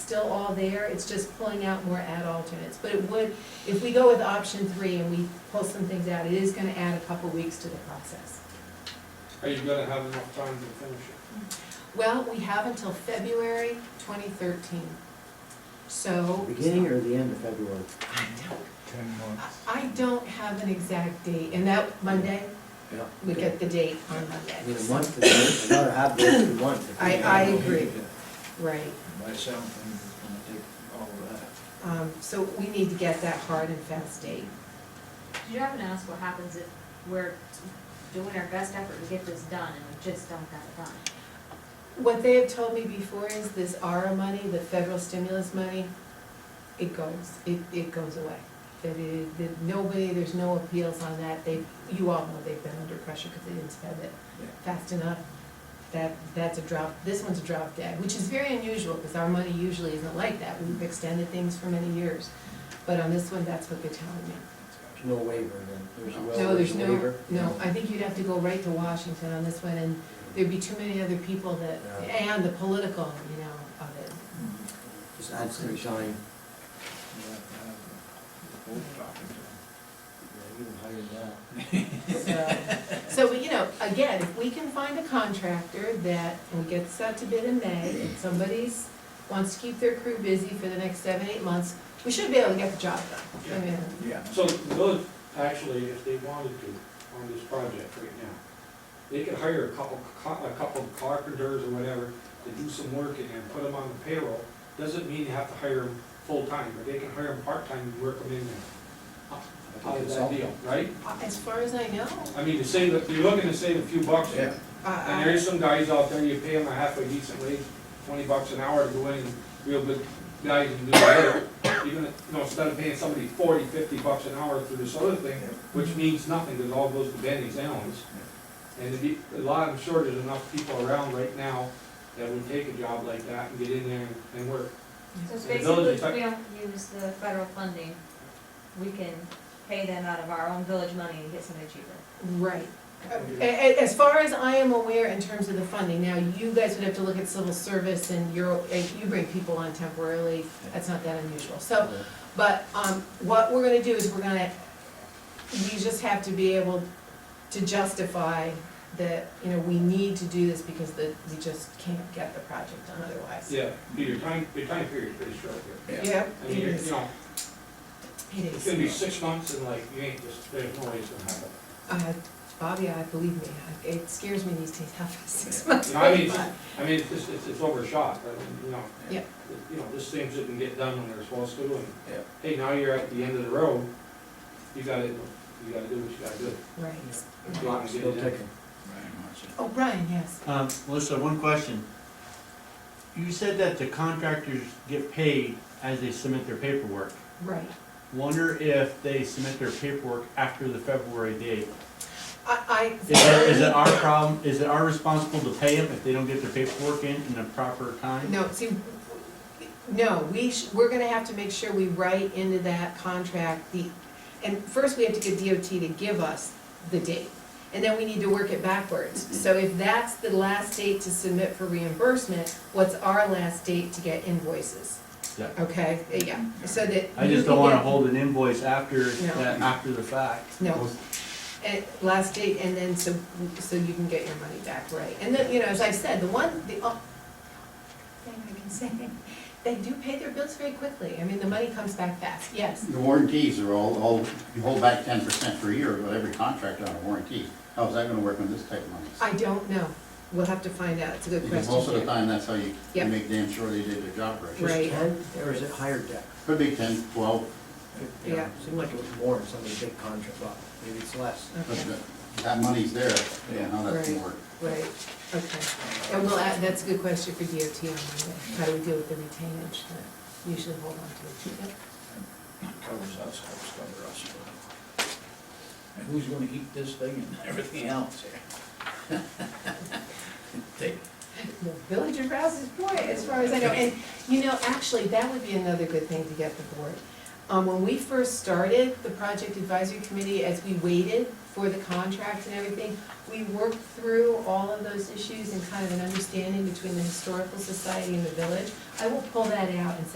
still all there, it's just pulling out more ad alternates. But it would, if we go with option three and we pull some things out, it is gonna add a couple weeks to the process. Are you gonna have enough time to finish it? Well, we have until February twenty thirteen, so. Beginning or the end of February? I don't- Ten months. I don't have an exact date, and that, Monday, Yeah. we get the date on I mean, a Monday. month, is another half day is a month. I- I agree. Right, Myself, I'm gonna take all of that. um, so we need to get that hard and fast date. Did you happen to ask what happens if we're doing our best effort to get this done and we just don't have it done? What they have told me before is this ARA money, the federal stimulus money, it goes, it, it goes away. That it, that nobody, there's no appeals on that, they, you all know they've been under pressure because they didn't spend it Yeah. fast enough. That, that's a drop, this one's a drop dead, which is very unusual because our money usually isn't like that, we've extended things for many years. But on this one, that's what they're telling me. There's no waiver then, there's no No, there's no, waiver? no, I think you'd have to go right to Washington on this one, and there'd be too many other people that, Yeah. and the political, you know, of it. Just add some time. You'll have to have the whole talking to Yeah, even higher than that. So- So, you know, again, if we can find a contractor that, and we get this out to bid in May, and somebody's, wants to keep their crew busy for the next seven, eight months, we should be able to get the job done. I mean, them. Yeah. So the village, actually, if they wanted to, on this project right now, they could hire a couple, co- a couple carpenters or whatever to do some work and then put them on the payroll. Doesn't mean you have to hire them full-time, but they can hire them part-time and work them in there. How does that deal, right? uh, As far as I know, uh, I mean, to save, if you're looking to save a few bucks, Yeah. and I, there's some guys out there, you pay them a halfway decent wage, twenty bucks an hour to go in, and real good guys can do it. Even, if- you know, instead of paying somebody forty, fifty bucks an hour for this other thing, which means nothing, because it all goes to Benny's Allen's. And it'd be, a lot, I'm sure there's enough people around right now that would take a job like that and get in there and- and work. So it's The village basically, is if like- we don't use the federal funding, we can pay them out of our own village money and get somebody cheaper. right. Uh, A- a- As far as I am aware in terms of the funding, now you guys would have to look at civil service and you're, and you bring people on temporarily, that's not that unusual. So But um, what we're gonna do is we're gonna, we just have to be able to justify that, you know, we need to do this because the, we just can't get the project done otherwise. Yeah, be your time, your time period's pretty short here. Yeah, I it mean, you're- is, you know, it it's is. gonna be six months and like, you ain't just, there's no way it's gonna Uh, happen. Bobby, I believe me, I- it scares me these days, how fast six months. You know, I mean, go by. I mean, it's, just- it's, it's overshot, but, you know. Yeah. it- You know, just things didn't get done when they're supposed to, and, Yeah. hey, now you're at the end of the road, you gotta, you gotta do what you gotta do. If you Right. wanna get Still it done. ticking. Very much. Oh, Brian, yes, Um, Melissa, one question. You said that the contractors get paid as they submit their paperwork. right. Wonder if they submit their paperwork after the February date? I, I. Is it, is it our problem, is it our responsible to pay them if they don't get their paperwork in in the proper time? No, see, no, we, sh- we're gonna have to make sure we write into that contract the, and first we have to get DOT to give us the date. And then we need to work it backwards. So if that's the last date to submit for reimbursement, what's our last date to get invoices? Yeah. Okay, yeah, so that. I you just can don't wanna get- hold an invoice after, No. that after the fact. No, and last date, and then so, so you can get your money back, right? And then, you know, as I said, the one, the, oh. o- thing I can say, they do pay their bills very quickly, I mean, the money comes back fast, yes. The warranties are all, all, you hold back ten percent per year, but every contract on a warranty, how's that gonna work on this type of money? I don't know, we'll have to find out, it's a good Because most of the question. time, that's how you, you Yep. make damn sure they did their job right. Right. Just ten, or is it higher deck? Could be ten, twelve, Yeah. Seemed like it was more in some of the big contracts, well, maybe it's less. but Okay, the- that money's there, I don't know how that's gonna Right. work. Right, okay, and we'll, add- that's a good question for DOT on Monday, how do we deal with the retainage that usually hold on to? it? Covers us, helps cover us. And who's gonna eat this thing and everything else here? Take, The village of Rouse's Point, as far as I know, and, you know, actually, that would be another good thing to get the board. Um, when we first started the project advisory committee, as we waited for the contracts and everything. We worked through all of those issues and kind of an understanding between the Historical Society and the village. I will pull that out and